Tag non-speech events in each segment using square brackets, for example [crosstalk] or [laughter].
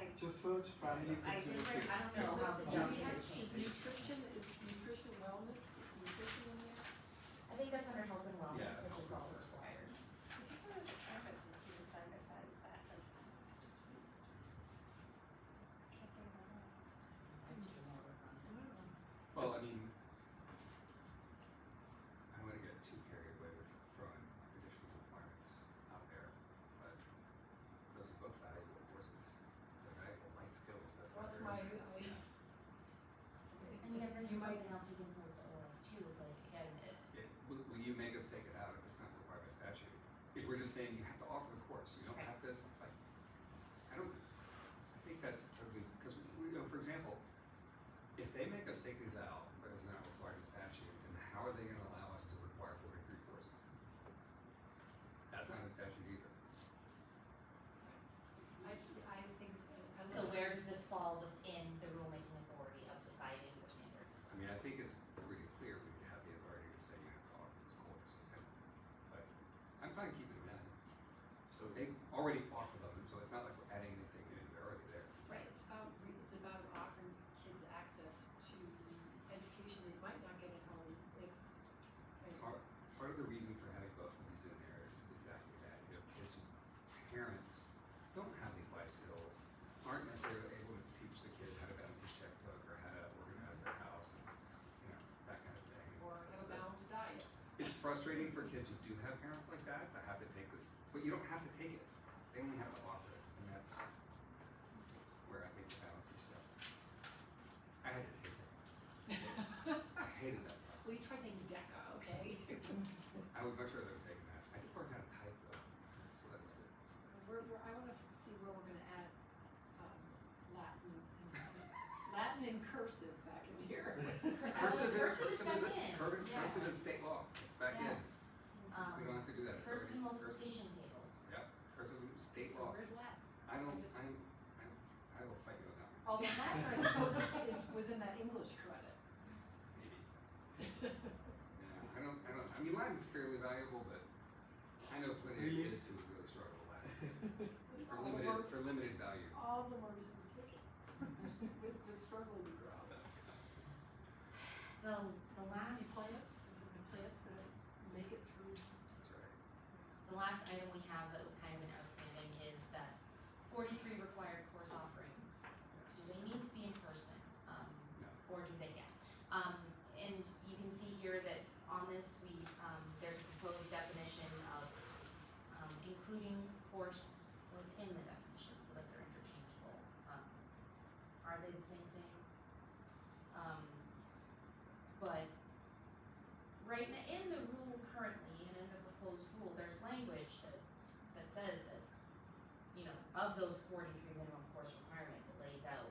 includes family I food. think, we're- I don't Is know the- how the do junk we have- food- Is nutrition, is nutrition wellness, is nutrition in there? I think that's under health and Yeah, wellness, which health is and all wellness. required. Well, I mean, I don't wanna get too carried away with throwing additional requirements out there, but those are both valuable courses. They're valuable life skills, that's why That's they're my, in there. I. And again, this You is might- something else we can post to OS too, so like, again, it, Yeah, will, will you make us take it out if it's not required by statute? If we're just saying you have to offer the course, you don't have to, like, I don't, I think that's totally, because, you know, for example, if they make us take these out, but it's not required by statute, then how are they gonna allow us to require forty-three courses? That's not in statute either. I, I think. I don't so know. where does this fall within the rulemaking authority of deciding the standards? I mean, I think it's pretty clear we would have the authority to say you have to offer this course, and, but I'm fine keeping it in. So they already offer them, and so it's not like we're adding anything new, they're already there. Right, it's about, re- it's about offering kids access to education they might not get at home, like. Part, part of the reason for having both of these in there is exactly that, you know, kids, who- parents don't have these life skills, aren't necessarily able to teach the kid how to balance a checkbook or how to organize their house, and, you know, that kind of thing. Or have a So- balanced [laughs] diet. It's frustrating for kids who do have parents like that to have to take this, but you don't have to take it. They only have to offer it, and that's where I think the balance is stuff. I had to take it. I hated that class. We tried taking DECA, okay? I would much rather have taken that. I did work out a type though, so that was good. We're, we're, I wanna f- see where we're gonna add, um, Latin, and- Latin and cursive back in here. Cursive is, cursive is cursive is, back in. cursive, Yeah. cursive is state law. It's back in. Yes, um, We don't have to do that. It's cursive already cursive. multiplication tables. Yep, cursive is state So law. where's Latin? I don't, just- I'm, I'm, I will fight you on that one, Although Oh, Latin, I suppose, is, is within that English credit. maybe. Yeah, I don't, I don't, I mean, Latin's fairly valuable, but I know plenty of Really? kids who would really struggle with Latin for All the limited, words- for limited value. All the words in the ticket. [laughs] With, with struggle we grow. The, the The last, plants, the the plants that make it through. That's right. the last item we have that was kind of an outstanding is that forty-three required course offerings. Yes. do they need to be in person, um, No. or do they get? Um, and you can see here that on this, we, um, there's a proposed definition of, um, including course within the definition, so that they're interchangeable. Um, Are they the same thing? Um, but right now, in the rule currently, and in the proposed rule, there's language that, that says that you know, of those forty-three minimum course requirements, it lays out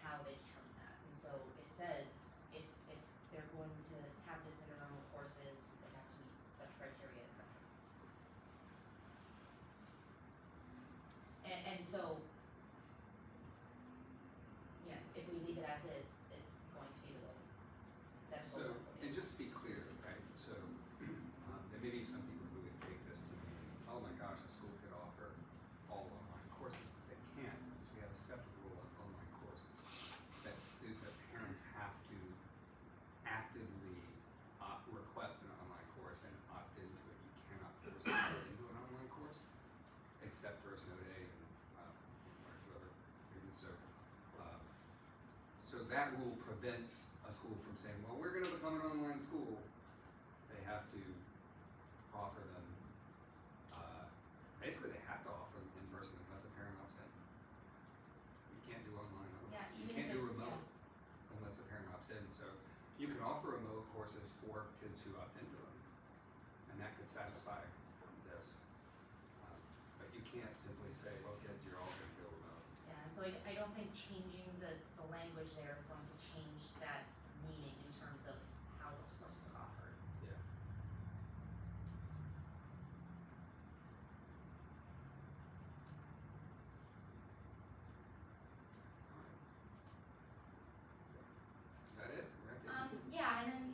how they determine that. And so it says if, if they're going to have this in their normal courses, they have to meet such criteria, et cetera. And, and so, yeah, if we leave it as is, it's going to be the way that it's So, going to and be. just to be clear, right, so, [clears throat] um, there may be some people who would take this to mean, oh my gosh, a school could offer all online courses, but they can't, because we have a separate rule on online courses. That stu- that parents have to actively opt, request an online course and opt into it, you cannot force them into an online course, except for a snow day and, um, one or two other reasons, so, um, so that rule prevents a school from saying, well, we're gonna become an online school. They have to offer them, uh, basically they have to offer them in person unless a parent opts in. You can't do online, Yeah, otherwise. you even if can't it, do yeah, remote unless a parent opts in, so you can offer remote courses for kids who opt into them. And that could satisfy this. Um, But you can't simply say, well, kids, you're all gonna go remote. yeah, and so I, I don't think changing the, the language there is going to change that Um, Um,